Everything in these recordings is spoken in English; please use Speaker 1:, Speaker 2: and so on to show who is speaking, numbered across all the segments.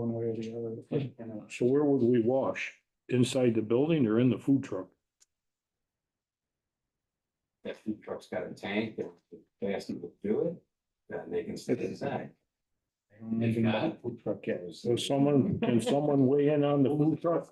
Speaker 1: uh,
Speaker 2: So where would we wash? Inside the building or in the food truck?
Speaker 3: That food truck's got a tank, if they ask them to do it, then they can sit inside. If not,
Speaker 4: Food truck, yeah.
Speaker 2: So someone, can someone weigh in on the food truck?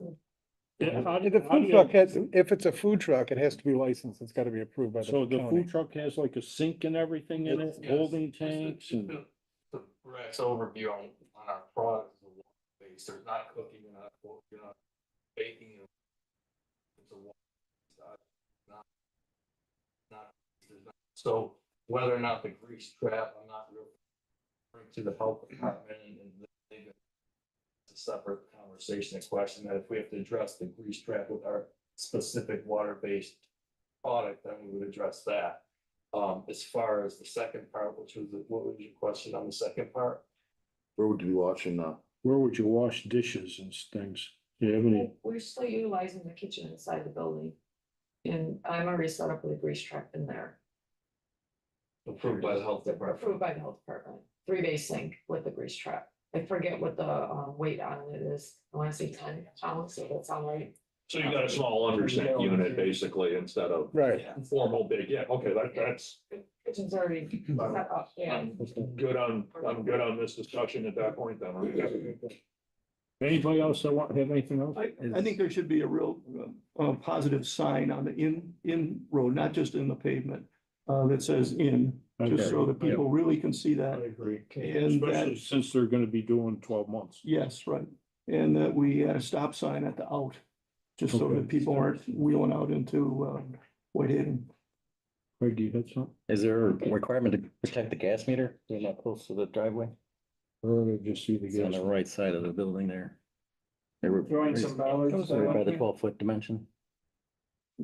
Speaker 2: Yeah, how do-
Speaker 4: The
Speaker 2: how do
Speaker 4: food
Speaker 2: you-
Speaker 4: truck has, if it's a food truck, it has to be licensed, it's gotta be approved by the
Speaker 2: So the
Speaker 4: county.
Speaker 2: food truck has like a sink and everything in it,
Speaker 5: Yes.
Speaker 2: holding
Speaker 5: Just a-
Speaker 2: tanks
Speaker 5: just
Speaker 2: and,
Speaker 5: a- The Rex overview on, on our product is a water base, there's not cooking, you're not, you're not baking. you're- It's a water. it's not- not- not- there's not- So whether or not the grease trap, I'm not real. bring To the health department and and they. they- It's a separate conversation and question that if we have to address the grease trap with our specific water-based product, then we would address that. Um, as far as the second part, which was, what was your question on the second part?
Speaker 6: Where would you be watching now?
Speaker 2: where would you wash dishes and things? Do you have any?
Speaker 7: We're still utilizing the kitchen inside the building. And I'm already set up with a grease trap in there,
Speaker 5: Approved by the health
Speaker 7: approved
Speaker 5: department.
Speaker 7: by the health department, three bay sink with a grease trap. I forget what the uh weight on it is, I wanna say ten pounds, so that's all right.
Speaker 8: So you got a small undersink unit basically instead of
Speaker 4: Right,
Speaker 8: formal big, yeah, okay, that, that's
Speaker 7: Kitchen's already set up, yeah.
Speaker 8: good on, I'm good on this discussion at that point then. I'm-
Speaker 2: Anybody else that want, have anything else?
Speaker 9: I, I think there should be a real, uh, uh, positive sign on the in, in road, not just in the pavement, uh, that says in, just so that people really can see that.
Speaker 2: agree.
Speaker 9: And
Speaker 2: Especially
Speaker 9: that,
Speaker 2: since they're gonna be doing twelve months.
Speaker 9: yes, right, and that we had a stop sign at the out, just so
Speaker 2: Okay.
Speaker 9: that people aren't wheeling out into, uh, Whitehaven.
Speaker 2: Craig, do you have something?
Speaker 10: Is there a requirement to protect the gas meter? They're not close to the driveway.
Speaker 2: Or did you see the
Speaker 10: It's on
Speaker 2: guys?
Speaker 10: the right side of the building there. They were.
Speaker 4: Throwing some dollars
Speaker 10: Those are By the
Speaker 4: there.
Speaker 10: twelve foot dimension.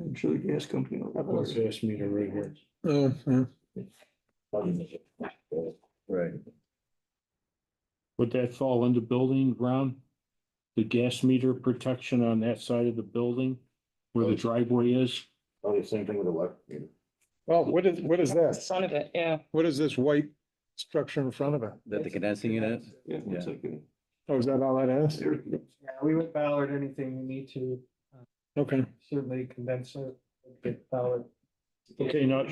Speaker 9: I'm sure the gas company. will report it.
Speaker 2: Gas meter right here.
Speaker 4: Oh,
Speaker 10: Right.
Speaker 2: Would that fall under building ground? The gas meter protection on that side of the building where the driveway is?
Speaker 6: Probably the same thing with electric meter.
Speaker 4: well, what is, what is that?
Speaker 11: Son of it, yeah.
Speaker 4: What is this white structure in front of it?
Speaker 10: That the condensing unit?
Speaker 9: Yeah, it looks like a-
Speaker 4: Oh, is that all that is?
Speaker 1: Yeah, we would Ballard anything we need to,
Speaker 4: Okay,
Speaker 11: Uh,
Speaker 1: certainly condense it, get Ballard.
Speaker 2: Okay, not,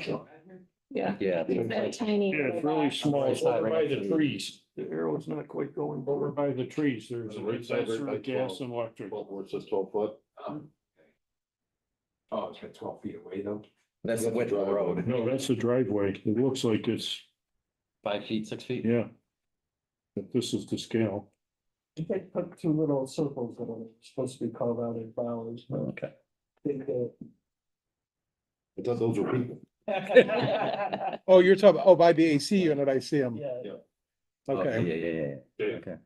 Speaker 7: Yeah.
Speaker 10: Yeah.
Speaker 7: That tiny.
Speaker 2: yeah, it's really small, It's over by the trees,
Speaker 9: the arrow's not quite going.
Speaker 2: over by the trees, there's a
Speaker 6: Right side, right
Speaker 2: dispenser
Speaker 6: by
Speaker 2: of gas
Speaker 6: 12.
Speaker 2: and electric.
Speaker 6: Twelve, where it says twelve foot.
Speaker 3: Um, oh, it's got twelve feet away though.
Speaker 10: That's the width of the road.
Speaker 2: No, that's the driveway, it looks like it's,
Speaker 10: Five feet, six feet?
Speaker 2: yeah. But this is the scale,
Speaker 1: They put two little circles that are supposed to be called out as Ballards, but
Speaker 10: Okay.
Speaker 1: they did.
Speaker 6: It does, those are people.
Speaker 11: Yeah.
Speaker 4: oh, you're talking, oh, by the AC unit, I see them,
Speaker 1: Yeah.
Speaker 4: okay.
Speaker 10: Oh, Yeah, yeah, yeah, yeah.
Speaker 8: Dave,
Speaker 10: Okay.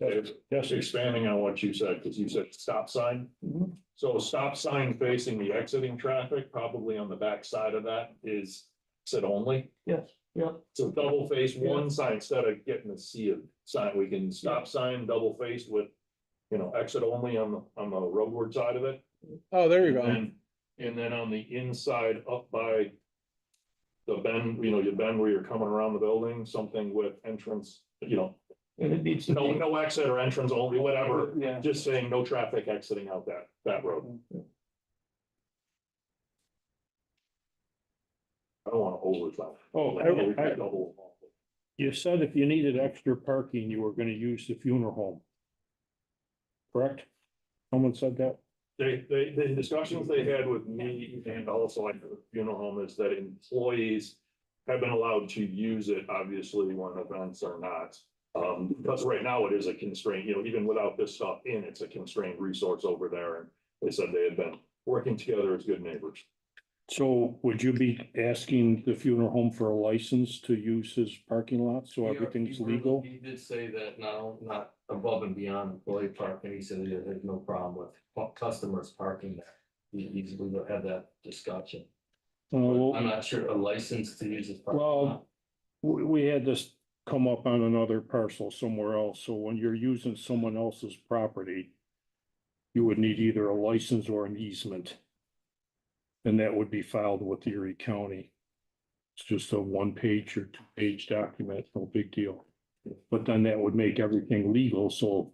Speaker 8: Dave, Just expanding on what you said, because you said stop sign.
Speaker 2: Mm-hmm.
Speaker 9: Mhm.
Speaker 8: So a stop sign facing the exiting traffic, probably on the back side of that is said only.
Speaker 9: Yes, yeah.
Speaker 8: So double face one sign instead of getting a sea of sign, we can stop sign double faced with, you know, exit only on the, on the roadward side of it.
Speaker 4: Oh, there you go.
Speaker 8: And then- And then on the inside up by the bend, you know, you bend where you're coming around the building, something with entrance, you know,
Speaker 9: And it needs to
Speaker 8: no,
Speaker 9: be,
Speaker 8: no exit or entrance only, whatever.
Speaker 1: Yeah.
Speaker 8: Just saying no traffic exiting out that, that road. I don't want to overtalk.
Speaker 2: oh, I, I, you said if you needed extra parking, you were gonna use the funeral home. Correct? Someone said that?
Speaker 8: They, they, the discussions they had with me and also like the funeral home is that employees have been allowed to use it, obviously, when events are not. Um, because right now it is a constraint, you know, even without this stuff in, it's a constrained resource over there. And they said they had been working together as good neighbors.
Speaker 2: So would you be asking the funeral home for a license to use his parking lot, so
Speaker 5: He-
Speaker 2: everything's
Speaker 5: he really-
Speaker 2: legal?
Speaker 5: He did say that no, not above and beyond employee parking, he said that there's no problem with cu- customers parking there. He, he's, we will have that discussion.
Speaker 2: Uh,
Speaker 5: I'm
Speaker 2: well,
Speaker 5: not sure a license to use this. parking
Speaker 2: Well,
Speaker 5: lot.
Speaker 2: we, we had this come up on another parcel somewhere else, so when you're using someone else's property, you would need either a license or an easement. And that would be filed with Erie County. It's just a one-page or two-page document, no big deal. But then that would make everything legal, so